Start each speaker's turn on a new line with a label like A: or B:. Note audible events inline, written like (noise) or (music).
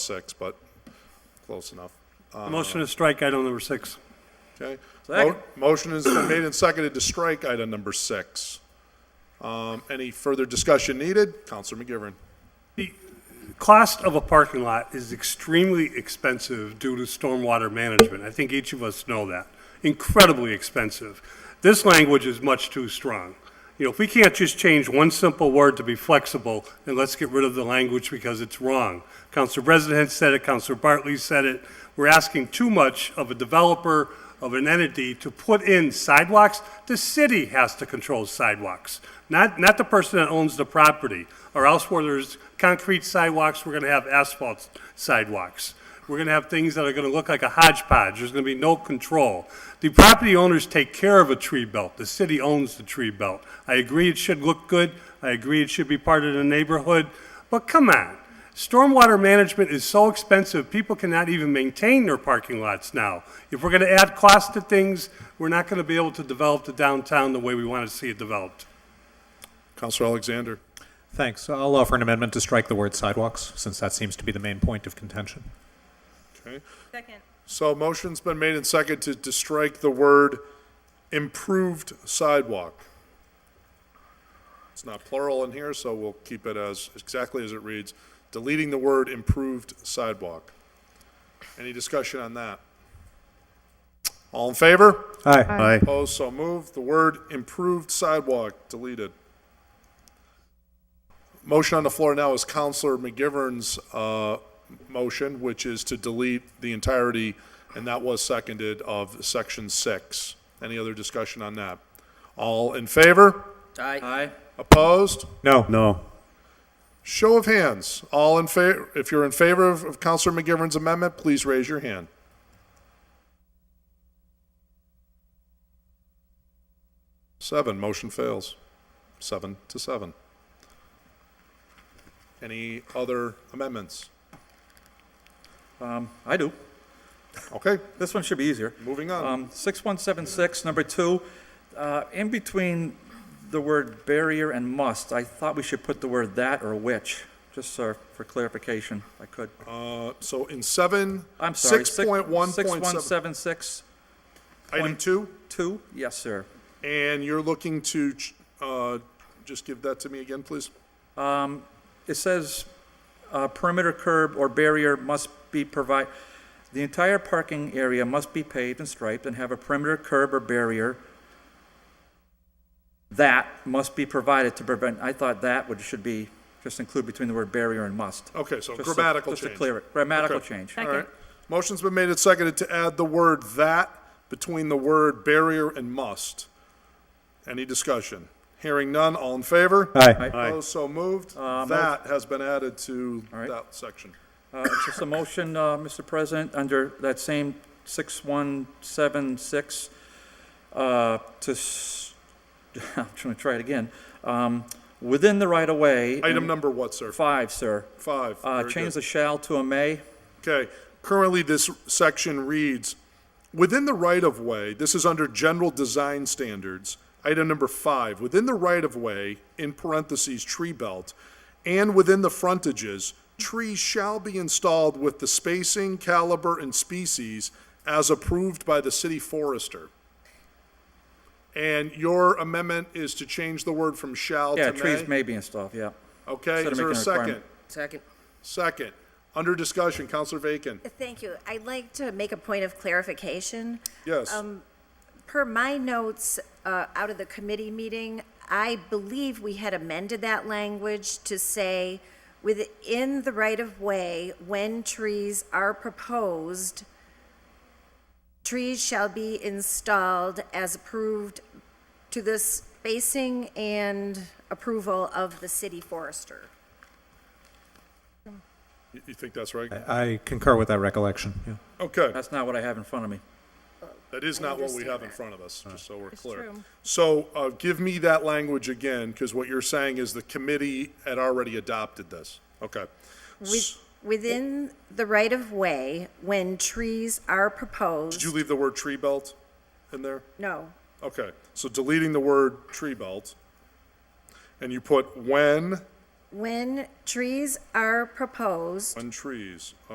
A: six, but close enough.
B: Motion to strike item number six.
A: Okay?
C: Second.
A: Mo- Motion has been made and seconded to strike item number six. Um, Any further discussion needed? Counselor McGivern.
B: Cost of a parking lot is extremely expensive due to stormwater management. I think each of us know that. Incredibly expensive. This language is much too strong. You know, if we can't just change one simple word to be flexible, then let's get rid of the language because it's wrong. Council President said it, Council Bartley said it. We're asking too much of a developer, of an entity to put in sidewalks, the city has to control sidewalks, not, not the person that owns the property, or else where there's concrete sidewalks, we're gonna have asphalt sidewalks. We're gonna have things that are gonna look like a hodgepodge, there's gonna be no control. The property owners take care of a tree belt, the city owns the tree belt. I agree it should look good, I agree it should be part of the neighborhood, but come on. Stormwater management is so expensive, people cannot even maintain their parking lots now. If we're going to add cost to things, we're not going to be able to develop the downtown the way we want to see it developed.
A: Counselor Alexander.
D: Thanks. I'll offer an amendment to strike the word sidewalks, since that seems to be the main point of contention.
A: Okay.
C: Second.
A: So motion's been made and seconded to strike the word improved sidewalk. It's not plural in here, so we'll keep it as, exactly as it reads, deleting the word improved sidewalk. Any discussion on that? All in favor?
D: Aye.
A: Opposed, so moved. The word improved sidewalk deleted. Motion on the floor now is Counselor McGivern's uh, motion, which is to delete the entirety, and that was seconded, of Section 6. Any other discussion on that? All in favor?
C: Aye. Aye.
A: Opposed?
D: No. No.
A: Show of hands. All in favor, if you're in favor of of Counselor McGivern's amendment, please raise your hand. Seven, motion fails. Seven to seven. Any other amendments?
E: I do.
A: Okay,
E: This one should be easier.
A: moving on.
E: Um, 6176, number two, uh, in between the word barrier and must, I thought we should put the word that or which, just so for clarification, if I could.
A: Uh, So in seven,
E: I'm sorry.
A: six point one point seven,
E: 6176,
A: item
E: point-
A: two,
E: two, yes, sir.
A: and you're looking to, ch- uh, just give that to me again, please.
E: It says uh, perimeter curb or barrier must be provide, the entire parking area must be paved and striped and have a perimeter curb or barrier that must be provided to prevent, I thought that would, should be, just include between the word barrier and must.
A: Okay, so
E: Just to-
A: grammatical
E: Just to
A: change.
E: clear it, grammatical
A: Okay.
E: change.
A: All right. Motion's been made and seconded to add the word "that" between the word "barrier" and "must." Any discussion? Hearing none, all in favor?
D: Aye.
A: Opposed, so moved. That has been added to
E: Uh, right.
A: that section.
E: Uh, it's Just a motion, uh, Mr. President, under that same 6176, uh, to, s- (laughs) I'm trying to try it again, Um, within the right-of-way.
A: Item
E: in-
A: number what, sir?
E: Five, sir.
A: Five.
E: Uh,
A: Very
E: Change
A: good.
E: the shall to a may.
A: Okay, currently this section reads, within the right-of-way, this is under general design standards, item number five, within the right-of-way, in parentheses, tree belt, and within the frontages, trees shall be installed with the spacing, caliber, and species as approved by the city forester. And your amendment is to change the word from shall to may?
E: Yeah, trees may be installed, yeah.
A: Okay,
E: instead of
A: is there a
E: making a
A: second?
E: requirement.
C: Second.
A: Second. Under discussion, Counselor Bacon,
F: Thank you. I'd like to make a point of clarification.
A: yes?
F: Per my notes uh, out of the committee meeting, I believe we had amended that language to say, within the right-of-way, when trees are proposed, trees shall be installed as approved to the spacing and approval of the city forester.
A: You- You think that's right?
D: I concur with that recollection. Yeah.
A: Okay,
E: That's not what I have in front of me.
A: that is not what we
F: understand
A: have in
F: that.
A: front of us, just so we're clear.
F: true.
A: So, uh, give me that language again, because what you're saying is the committee had already adopted this. Okay.
F: With- Within the right-of-way, when trees are proposed.
A: Did you leave the word tree belt in there?
F: No,
A: Okay, so deleting the word tree belt. And you put when,
F: When trees are proposed
A: when trees